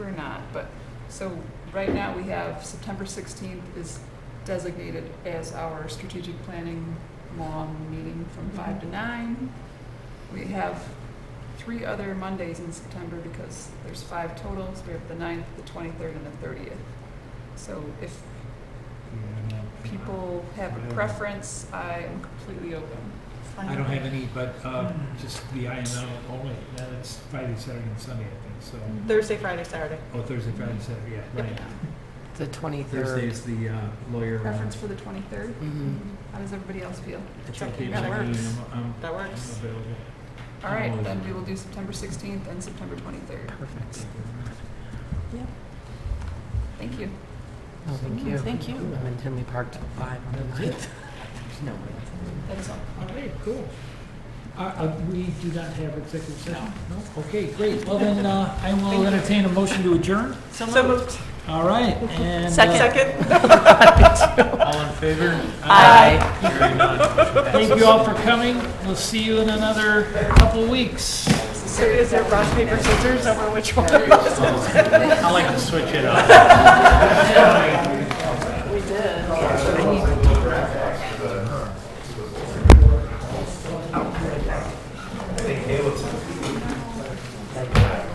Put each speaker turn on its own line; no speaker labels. but, so right now we have September 16th is designated as our strategic planning long meeting from 5 to 9. We have three other Mondays in September because there's five totals. We have the 9th, the 23rd, and the 30th. So if people have a
Whatever.
preference, I am completely open.
I don't have any, but um, just the I and L only. Now it's Friday, Saturday, and Sunday, I think, so.
Thursday, Friday, Saturday.
Oh, Thursday, Friday, Saturday, yeah, right.
The
Thursday
twenty-third.
is the uh, lawyer. uh,
Preference for the 23rd?
Mhm.
How does everybody else feel?
It's
Check.
okay,
That
check me in.
works.
I'm- I'm-
That
I'm
works.
available.
All right, then we will do September 16th and September 23rd.
Perfect.
Thank you.
No, Oh, thank you.
Thank you.
I'm in Tinley Park till five on the ninth. There's no way.
That is all.
All right, cool. Uh, uh, We do not have executive session? No. Okay, great. Well, then, uh, I will entertain a motion to adjourn.
So
moved. All right, and. uh,
Second.
All in favor?
Aye.
Hearing none.
Thank you all for coming. We'll see you in another couple weeks.
So is it rock, paper, scissors over which one?
I like to switch it up.
We did.
I need to do that.